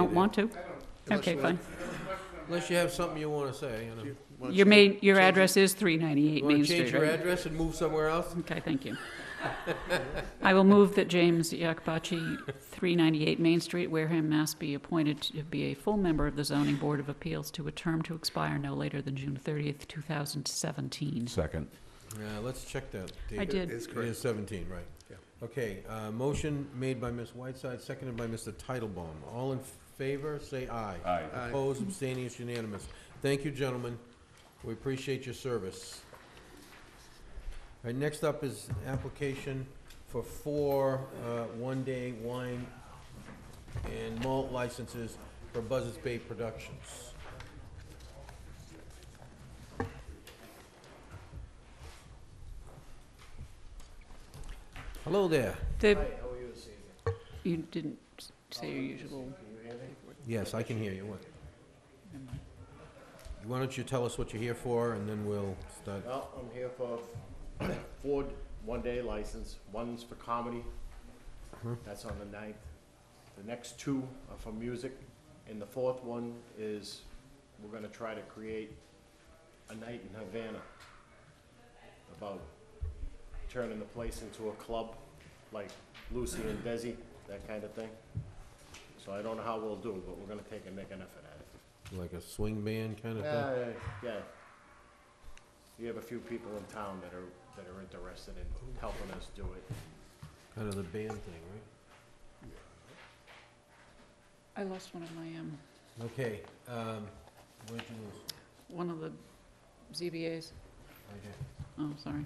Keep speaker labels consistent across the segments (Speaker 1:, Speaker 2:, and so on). Speaker 1: don't want to? Okay, fine.
Speaker 2: Unless you have something you want to say, you know. Wanna
Speaker 1: Your
Speaker 2: change-
Speaker 1: main, your
Speaker 2: change-
Speaker 1: address is 398
Speaker 2: You want
Speaker 1: Main
Speaker 2: to change
Speaker 1: Street,
Speaker 2: your
Speaker 1: right?
Speaker 2: address and move somewhere else?
Speaker 1: Okay, thank you. I will move that James Yakbachi, 398 Main Street, Wareham, Mass. be appointed to be a full member of the Zoning Board of Appeals to a term to expire no later than June 30th, 2017.
Speaker 3: Second.
Speaker 2: Yeah, let's check that.
Speaker 1: I
Speaker 2: David.
Speaker 1: did.
Speaker 2: It is 17, right. Okay, uh, motion made by Ms. Whiteside, seconded by Mr. Titlebaum. All in favor, say aye.
Speaker 3: Aye.
Speaker 2: Opposed, abstaining, it's unanimous. Thank you, gentlemen. We appreciate your service. All right, next up is application for four uh, one-day wine and malt licenses for Buzzards Bay Productions. Hello there.
Speaker 1: The- You didn't s- say your usual.
Speaker 2: Yes, I can hear you. What- Why don't you tell us what you're here for, and then we'll start.
Speaker 4: Well, I'm here for four one-day license. One's for comedy. That's on the ninth. The next two are for music, and the fourth one is, we're gonna try to create a night in Havana about turning the place into a club, like Lucy and Desi, that kind of thing. So I don't know how we'll do, but we're gonna take a nick and effort at it.
Speaker 2: Like a swing band kind of thing?
Speaker 4: Yeah, yeah. You have a few people in town that are, that are interested in helping us do it.
Speaker 2: Kind of the band thing, right?
Speaker 1: I lost one of my, um,
Speaker 2: Okay, um, where'd you lose?
Speaker 1: one of the ZBAs.
Speaker 2: Right here.
Speaker 1: Oh, sorry.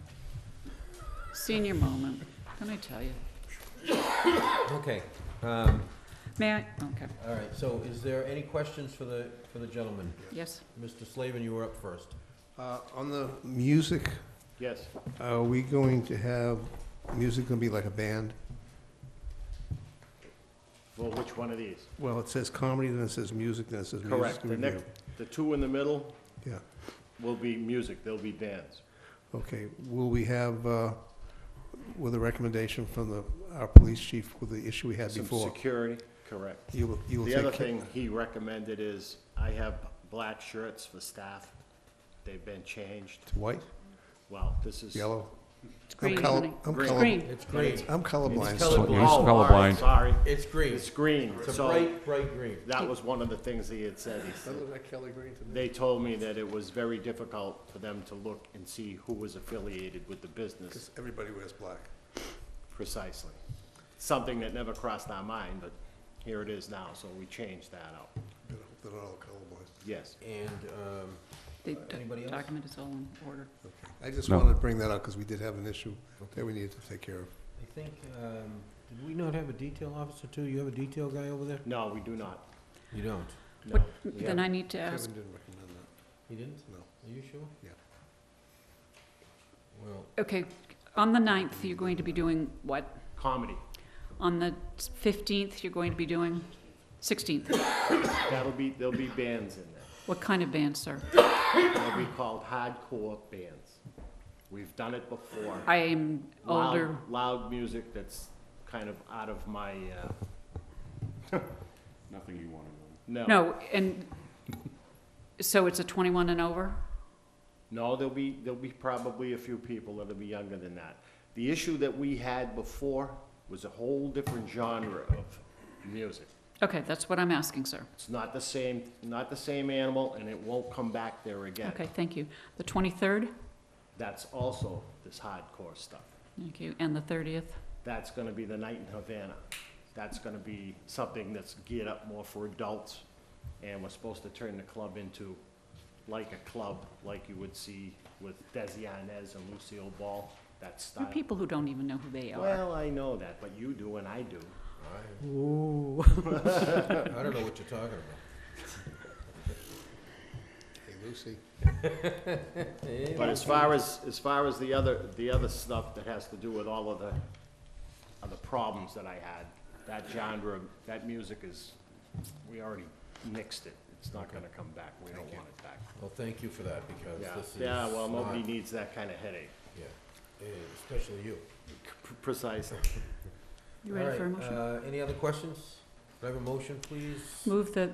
Speaker 1: Senior moment, can I tell you?
Speaker 2: Okay, um,
Speaker 1: May I? Okay,
Speaker 2: all right, so is there any questions for the, for the gentleman?
Speaker 1: yes.
Speaker 2: Mr. Slavin, you were up first.
Speaker 5: Uh, On the music,
Speaker 4: Yes,
Speaker 5: are we going to have, music going to be like a band?
Speaker 4: well, which one of these?
Speaker 5: Well, it says comedy, then it says music, then it says music.
Speaker 4: Correct, the
Speaker 5: review.
Speaker 4: next, the two in the middle
Speaker 5: Yeah,
Speaker 4: will be music, they'll be bands.
Speaker 5: okay. Will we have, uh, with a recommendation from the, our police chief with the issue we had
Speaker 4: Some
Speaker 5: before?
Speaker 4: security, correct.
Speaker 5: You will, you will
Speaker 4: The
Speaker 5: take
Speaker 4: other
Speaker 5: ca-
Speaker 4: thing he recommended is, I have black shirts for staff. They've been changed.
Speaker 5: to White,
Speaker 4: Well, this is.
Speaker 5: yellow?
Speaker 1: It's
Speaker 5: I'm
Speaker 1: green,
Speaker 5: color-
Speaker 1: honey.
Speaker 5: I'm
Speaker 4: Green.
Speaker 5: color-
Speaker 1: Green.
Speaker 2: It's green.
Speaker 5: I'm colorblind.
Speaker 2: It's
Speaker 4: Oh,
Speaker 2: colorblind.
Speaker 3: He's
Speaker 4: all right,
Speaker 3: colorblind.
Speaker 4: Sorry,
Speaker 2: It's green.
Speaker 4: it's green,
Speaker 2: It's a
Speaker 4: so
Speaker 2: bright, bright green.
Speaker 4: that was one of the things he had said, he said.
Speaker 5: like Kelly Green to
Speaker 4: They told me that it was very difficult for them to look and see who was affiliated with the business
Speaker 5: everybody wears black.
Speaker 4: precisely. Something that never crossed our mind, but here it is now, so we changed that out.
Speaker 5: Better hope they're not all colorblind.
Speaker 4: Yes.
Speaker 2: And, um,
Speaker 1: The
Speaker 2: Anybody
Speaker 1: do-
Speaker 2: else?
Speaker 1: document is all in order.
Speaker 5: I just
Speaker 3: No.
Speaker 5: wanted to bring that up because we did have an issue that we needed to take care of.
Speaker 2: I think, um, did we not have a detail officer too? You have a detail guy over there?
Speaker 4: No, we do not.
Speaker 2: You don't.
Speaker 4: No.
Speaker 1: What, then I need to ask,
Speaker 5: Kevin didn't recommend that,
Speaker 2: He didn't?
Speaker 5: no.
Speaker 2: Are you sure?
Speaker 5: Yeah.
Speaker 2: Well,
Speaker 1: okay, on the 9th, you're going to be doing what?
Speaker 4: Comedy.
Speaker 1: On the 15th, you're going to be doing, 16th,
Speaker 4: That'll be, there'll be bands in there.
Speaker 1: what kind of band, sir?
Speaker 4: They'll be called hardcore bands. We've done it before.
Speaker 1: I am
Speaker 4: Loud-
Speaker 1: older,
Speaker 4: Loud music that's kind of out of my, uh,
Speaker 3: Nothing you want to know.
Speaker 4: no.
Speaker 1: no, and, so it's a 21 and over?
Speaker 4: No, there'll be, there'll be probably a few people that'll be younger than that. The issue that we had before was a whole different genre of music.
Speaker 1: Okay, that's what I'm asking, sir.
Speaker 4: It's not the same, not the same animal, and it won't come back there again.
Speaker 1: Okay, thank you. The 23rd,
Speaker 4: That's also this hardcore stuff.
Speaker 1: thank you, and the 30th?
Speaker 4: That's gonna be the night in Havana. That's gonna be something that's geared up more for adults, and we're supposed to turn the club into like a club, like you would see with Desi Arnaz and Lucille Ball, that
Speaker 1: There
Speaker 4: style.
Speaker 1: are people who don't even know who they are.
Speaker 4: Well, I know that, but you do and I do.
Speaker 2: I don't know what you're talking about.
Speaker 5: Hey, Lucy.
Speaker 4: But as far as, as far as the other, the other stuff that has to do with all of the, of the problems that I had, that genre, that music is, we already mixed it. It's not gonna come back. We don't want it back.
Speaker 2: Well, thank you for that, because
Speaker 4: Yeah,
Speaker 2: this is
Speaker 4: yeah, well, nobody
Speaker 2: not-
Speaker 4: needs that kind of headache.
Speaker 2: Yeah, eh, especially you.
Speaker 4: Precisely.
Speaker 1: You
Speaker 2: All
Speaker 1: ready for a
Speaker 2: right,
Speaker 1: motion?
Speaker 2: uh, Any other questions?
Speaker 6: Do I have a motion, please?
Speaker 2: Move that